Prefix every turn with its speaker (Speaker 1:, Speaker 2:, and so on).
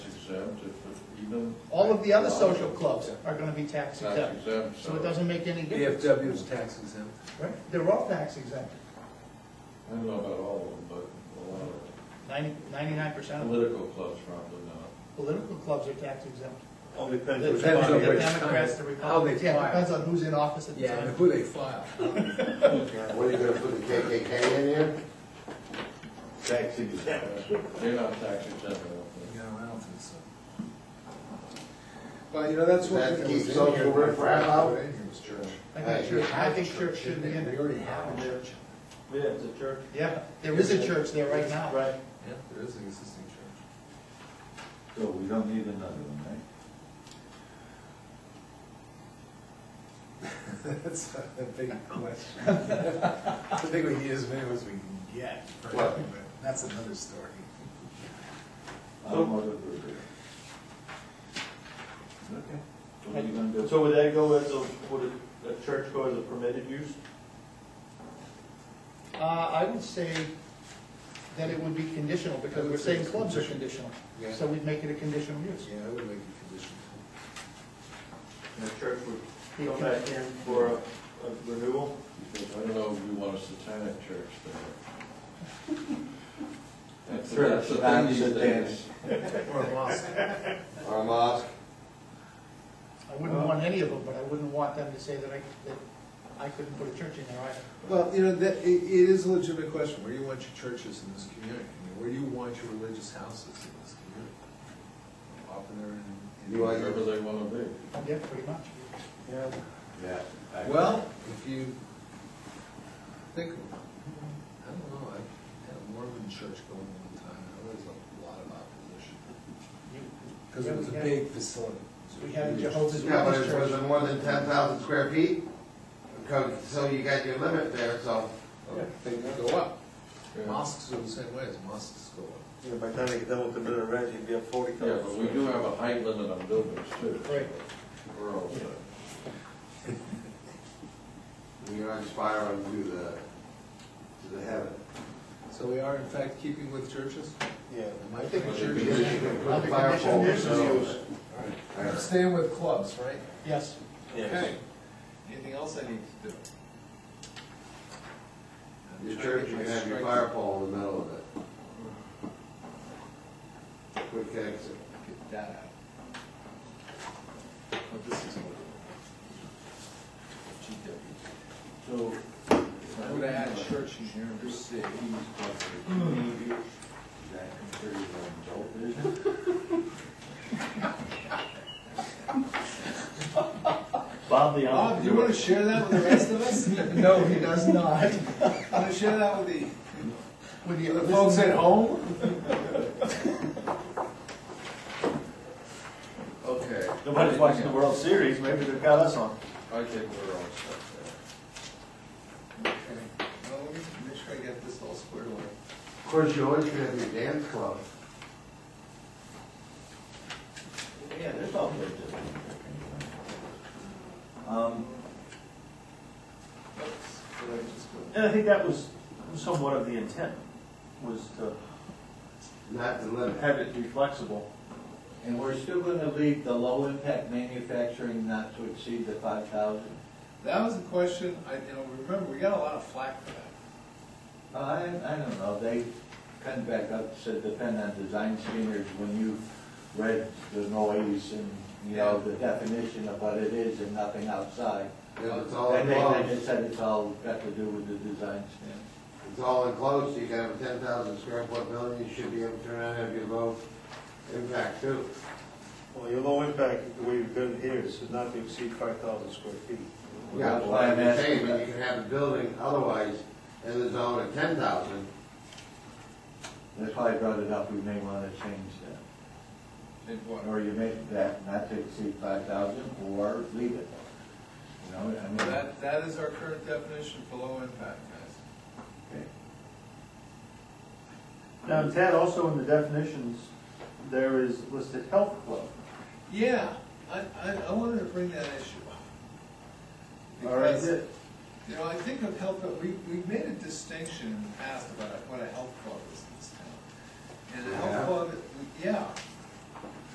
Speaker 1: exempt if it's even.
Speaker 2: All of the other social clubs are gonna be tax
Speaker 1: Tax
Speaker 2: exempt,
Speaker 1: exempt, so.
Speaker 2: so it doesn't make any difference.
Speaker 3: VFW is tax exempt.
Speaker 2: Right, they're all tax exempt,
Speaker 1: I don't know about all of them, but a lot of
Speaker 2: ninety, ninety-nine percent of the
Speaker 1: political clubs probably not.
Speaker 2: political clubs are tax exempt.
Speaker 4: All depends
Speaker 2: The
Speaker 4: which
Speaker 3: Depends
Speaker 4: body
Speaker 3: on
Speaker 4: it
Speaker 2: the
Speaker 3: which
Speaker 4: is.
Speaker 2: Democrats, the
Speaker 3: kind, how they
Speaker 2: Republicans, yeah,
Speaker 3: file.
Speaker 2: it depends on who's in office at the
Speaker 3: Yeah, and
Speaker 2: time.
Speaker 3: who they file.
Speaker 5: What are you gonna put the KKK in here?
Speaker 4: Tax exempt.
Speaker 1: They're not tax exempt, I don't think.
Speaker 3: No, I don't think so. Well, you know, that's one
Speaker 5: That
Speaker 3: thing that
Speaker 5: keeps
Speaker 3: was in
Speaker 5: social
Speaker 3: here.
Speaker 5: riffraff out?
Speaker 3: In here was church.
Speaker 2: I think church, I think church should be in
Speaker 3: We
Speaker 2: it,
Speaker 3: already have a church.
Speaker 4: Yeah, it's a church.
Speaker 2: yeah, there is a church there right now.
Speaker 4: Right.
Speaker 3: Yeah, there is an existing church.
Speaker 1: So we don't need another one, right?
Speaker 3: That's a big question. I think we need as many as we can get, for
Speaker 5: Well-
Speaker 3: everything, but that's another story.
Speaker 1: Automotive brewery. Okay. What are you gonna do?
Speaker 4: So would that go as a, would a- a church go as a permitted use?
Speaker 2: Uh, I would say that it would be conditional, because we're saying clubs are conditional,
Speaker 3: Yeah.
Speaker 2: so we'd make it a conditional use.
Speaker 3: Yeah, I would make it conditional.
Speaker 4: And the church would come back in for a a renewal?
Speaker 1: Because I don't know if you want a satanic church there. That's,
Speaker 4: Church,
Speaker 1: that's the
Speaker 5: not
Speaker 1: thing these
Speaker 5: satanic.
Speaker 1: days.
Speaker 3: Or a mosque.
Speaker 5: Or a mosque?
Speaker 2: I wouldn't want any of them, but I wouldn't want them to say that I, that I couldn't put a church in there either.
Speaker 3: Well, you know, that, it, it is a legitimate question, where do you want your churches in this community? I mean, Where do you want your religious houses in this community? Often they're in. in-
Speaker 5: You want
Speaker 1: Wherever they wanna be.
Speaker 2: Yeah, pretty much.
Speaker 4: Yeah.
Speaker 5: Yeah.
Speaker 3: Well, if you think, I don't know, I had a Mormon church going one time, and there was a lot of opposition.
Speaker 2: You-
Speaker 3: Because it was a
Speaker 2: Yeah, we
Speaker 3: big facility.
Speaker 2: had- We had a Jehovah's
Speaker 5: Yeah, but
Speaker 2: Witness
Speaker 5: it was
Speaker 2: church.
Speaker 5: more than ten thousand square feet, because, so you got your limit there, so.
Speaker 3: Things Oh, go up.
Speaker 1: Yeah.
Speaker 3: Mosques are the same way, as mosques go up.
Speaker 4: Yeah, by the time they get done with the bit of red, you'd be at forty
Speaker 1: Yeah, but we do have a height limit on buildings too.
Speaker 2: Right.
Speaker 1: We're all set.
Speaker 5: You're on fire onto the, to the heaven.
Speaker 3: So we are in fact keeping with churches?
Speaker 4: Yeah.
Speaker 3: Am I thinking
Speaker 5: Because
Speaker 3: churches?
Speaker 5: you can
Speaker 2: Under
Speaker 5: put fire
Speaker 2: conditional
Speaker 5: poles.
Speaker 2: uses.
Speaker 3: I'm staying with clubs, right?
Speaker 2: Yes,
Speaker 3: Okay. Anything else I need to do?
Speaker 5: Your church, you can have your fire pole in the middle of it. Quick exit.
Speaker 3: Get that out. Oh, this is what.
Speaker 1: So.
Speaker 3: GW. I would have had church in here, and just say, Oh,
Speaker 4: Bob the.
Speaker 3: Bob, do you wanna share that with the rest of us?
Speaker 2: no, he does not.
Speaker 3: Wanna share that with the
Speaker 2: With
Speaker 3: The
Speaker 2: the-
Speaker 3: folks at home?
Speaker 1: Okay.
Speaker 4: Nobody's watching the World Series, maybe they've got us on.
Speaker 1: I think we're all set
Speaker 3: Okay. Well, let me make sure I get this all squared away.
Speaker 5: Of course, you always have your dance club.
Speaker 4: Yeah, there's all good. Um,
Speaker 3: Oops, did I just go-
Speaker 4: And I think that was somewhat of the intent, was to
Speaker 5: Not the limit.
Speaker 4: have it be flexible.
Speaker 6: And we're still gonna leave the low-impact manufacturing not to exceed the five thousand?
Speaker 3: That was a question, I, you know, remember, we got a lot of flack for
Speaker 4: Mm-hmm.
Speaker 3: that.
Speaker 6: I, I don't know, they cut it back up, said depend on design standards, when you read the noise and, you know, the definition of what it is and nothing outside.
Speaker 5: Yeah, it's all
Speaker 6: And they, they
Speaker 5: enclosed.
Speaker 6: just said it's all got to do with the design standards.
Speaker 5: It's all enclosed, you can have a ten thousand square foot building, you should be able to turn around and have your low impact too.
Speaker 7: Well, your low impact, the way you've done it here is not to exceed five thousand square feet.
Speaker 5: Yeah,
Speaker 6: That's
Speaker 5: well,
Speaker 6: why
Speaker 5: I'm
Speaker 6: I'm
Speaker 5: just
Speaker 6: asking
Speaker 5: saying,
Speaker 6: about-
Speaker 5: but you can have a building otherwise in the zone of ten thousand.
Speaker 6: That's why I brought it up, we may wanna change that,
Speaker 3: And what,
Speaker 6: or you make that not to exceed five thousand, or leave it. You know, I mean.
Speaker 3: That, that is our current definition for low impact, guys.
Speaker 6: okay.
Speaker 4: Now, Ted, also in the definitions, there is listed health club.
Speaker 3: Yeah, I, I, I wanted to bring that issue up.
Speaker 4: All right,
Speaker 3: Because, you know, I think of health, we, we've made a distinction in the past about what a health club is in this town. And a health
Speaker 5: Yeah.
Speaker 3: club, yeah,